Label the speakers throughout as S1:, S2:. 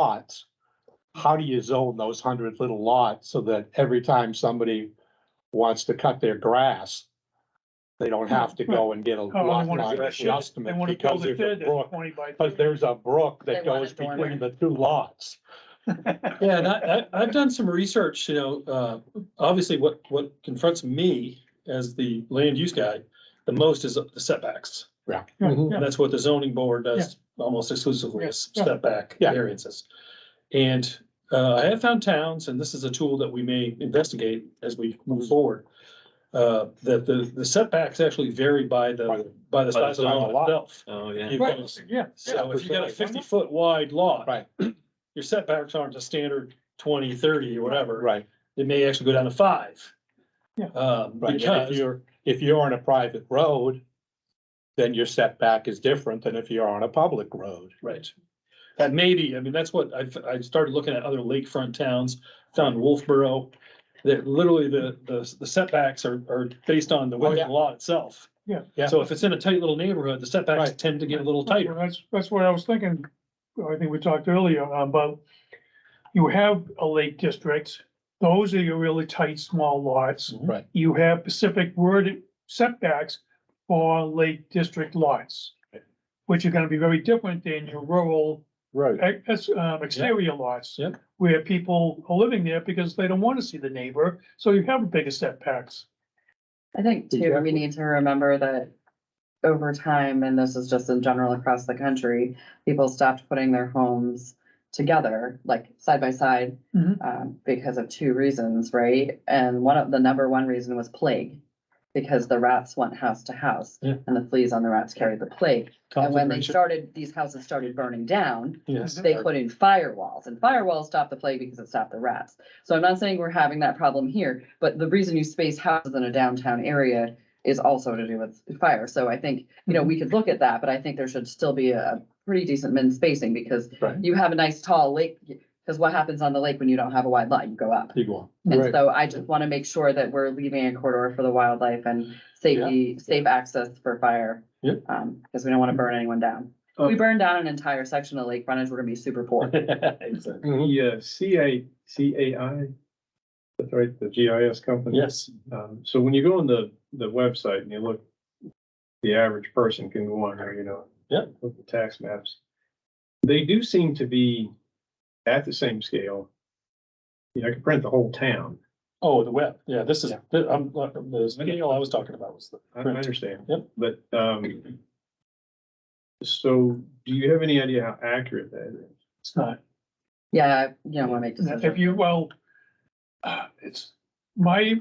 S1: lots, how do you zone those hundred little lots so that every time somebody wants to cut their grass, they don't have to go and get a
S2: Oh, they
S1: lot
S2: wanna
S1: line
S2: do it. They
S1: adjustment
S2: wanna
S1: because
S2: build
S1: there's
S2: it there
S1: a
S2: that's
S1: brook,
S2: twenty by.
S1: because there's a brook that
S3: They want
S1: goes
S3: a dormer.
S1: between the two lots.
S4: Yeah, and I, I, I've done some research, you know, uh, obviously what, what confronts me as the land use guy the most is the setbacks.
S2: Yeah,
S1: Mhm.
S2: yeah.
S4: And that's what the zoning board does almost exclusively is
S2: Yeah, yeah.
S4: setback
S1: Yeah.
S4: variances. And, uh, I have found towns, and this is a tool that we may investigate as we move forward, uh, that the, the setbacks actually vary by
S1: By
S4: the, by the size of the
S1: size of the lot.
S4: lot itself.
S5: Oh, yeah.
S4: You've
S2: Right,
S4: got-
S2: yeah.
S4: So if you got a
S1: absolutely.
S4: fifty foot wide lot.
S1: Right.
S4: Your setbacks aren't a standard 20, 30, or whatever.
S1: Right,
S4: It may actually go down to five.
S2: Yeah.
S4: Um,
S1: right. And If
S4: because,
S1: you're, if you're on a private road, then your setback is different than if you're on a public road.
S4: right. That maybe, I mean, that's what I've, I started looking at other lakefront towns, found Wolfboro. That literally the, the the setbacks are, are based on the width of the lot itself.
S2: Yeah.
S1: Oh, Yeah.
S4: So if it's in a tight little neighborhood, the setbacks
S1: Right.
S4: tend to get a little
S2: Well,
S4: tighter.
S2: That's, that's what I was thinking, I think we talked earlier about, you have a lake district, those are your really tight, small lots.
S1: Right.
S2: You have specific word setbacks for lake district lots, which are gonna be very different than your rural
S1: Right.
S2: ex- ex- um, exterior lots.
S4: Yep.
S2: Where people are living there because they don't wanna see the neighbor, so you have bigger setbacks.
S3: I think too, we need to remember that over time, and this is just in general across the country, people stopped putting their homes together, like side by side,
S2: Mhm.
S3: um, because of two reasons, right? And one of, the number one reason was plague, because the rats went house to house,
S4: Yeah.
S3: and the fleas on the rats carried the plague. And when they started, these houses started burning down,
S4: Yes.
S3: they put in firewalls and firewalls stop the plague because it stopped the rats. So I'm not saying we're having that problem here, but the reason you space houses in a downtown area is also to do with fire. So I think, you know, we could look at that, but I think there should still be a pretty decent min spacing because
S1: Right.
S3: you have a nice tall lake, because what happens on the lake when you don't have a wide lot? You go up.
S1: You go on.
S3: And so I just want to make sure that we're leaving a corridor for the wildlife and safety, safe access for fire.
S4: Yep.
S3: Um, because we don't want to burn anyone down. If we
S2: Oh.
S3: burn down an entire section of lake frontage, we're gonna be super poor.
S4: Exactly.
S6: Mm-hmm.
S7: The uh, CA, CAI, that's right, the GIS company.
S4: Yes.
S7: Um, so when you go on the, the website and you look, the average person can go on there, you know.
S4: Yep.
S7: Look at tax maps. They do seem to be at the same scale. You know, I could print the whole town.
S4: Oh, the web. Yeah, this is,
S1: Yeah.
S4: I'm, uh, the scale I was talking about was the.
S7: I I
S4: print.
S7: understand.
S4: Yep.
S7: But, um, so do you have any idea how accurate that is?
S2: It's not,
S3: Yeah, you don't wanna make
S2: Now, If
S3: decisions.
S2: you, well, uh, it's my,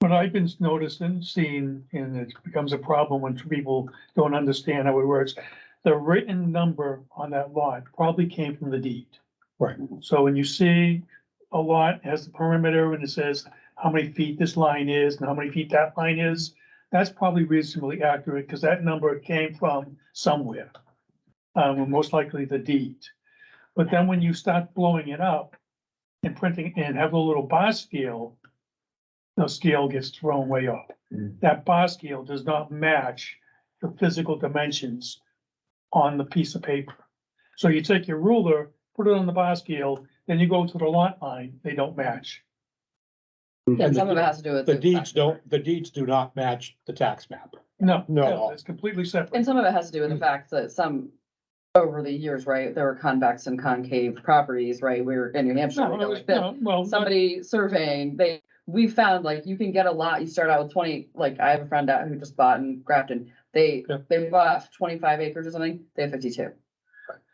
S2: what I've been noticing, seeing, and it becomes a problem when people don't understand how it works. The written number on that lot probably came from the deed.
S1: Right.
S2: So when you see a lot has the perimeter and it says how many feet this line is and how many feet that line is, that's probably reasonably accurate, because that number came from somewhere. Um, most likely the deed. But then when you start blowing it up and printing and have a little bar scale, the scale gets thrown way off.
S7: Mm.
S2: That bar scale does not match the physical dimensions on the piece of paper. So you take your ruler, put it on the bar scale, then you go to the lot line, they don't match.
S1: And
S3: Some of it
S1: the-
S3: has to do with.
S1: the deeds don't, the deeds do not match the tax map.
S2: No.
S1: No.
S2: It's completely separate.
S3: And some of it has to do
S2: Mm.
S3: with the fact that some, over the years, right, there were convex and concave properties, right, we were in New Hampshire.
S2: No,
S3: we
S2: no,
S3: know
S2: it's-
S3: it's built.
S2: no, well, not-
S3: somebody surveying, they, we found like you can get a lot, you start out with twenty, like I have a friend out who just bought in Grafton. They,
S4: Yeah.
S3: they bought twenty-five acres or something, they have fifty-two.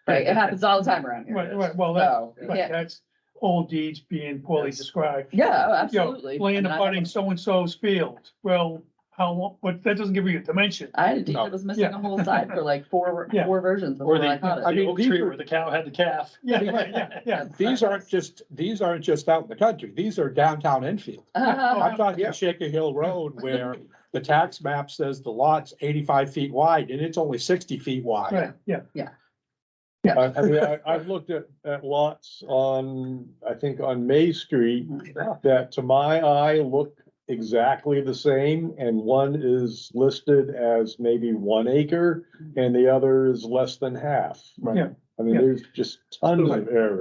S3: Right, it happens all the time around here.
S2: right, right, well, that,
S3: So,
S2: right,
S3: yeah,
S2: that's old deeds being poorly described.
S3: yeah, oh,
S2: You know,
S3: absolutely.
S2: Land
S3: I mean, I-
S2: abutting so-and-so's field, well, how, long? but that doesn't give you a dimension.
S3: I had a deed
S1: No.
S3: that was missing
S2: Oh, Yeah.
S3: a whole side for like four,
S2: Yeah.
S3: four versions
S4: Or
S3: before I
S4: the,
S3: caught it.
S1: I
S4: the
S1: mean,
S4: oak
S1: these
S4: tree
S1: are-
S4: where the cow had the calf.
S2: Yeah, right, yeah, yeah.
S1: These aren't just, these aren't just out in the country. These are downtown Enfield.
S3: Uh,
S1: I'm talking Shaker Hill Road where the tax map says the lot's eighty-five feet wide and it's only sixty feet wide.
S2: Right, yeah.
S6: I, I mean, I, I've looked at, at lots on, I think on May Street, that to my eye look exactly the same, and one is listed as maybe one acre, and the other is less than half.
S2: Yeah.
S1: I mean, there's just tons of errors.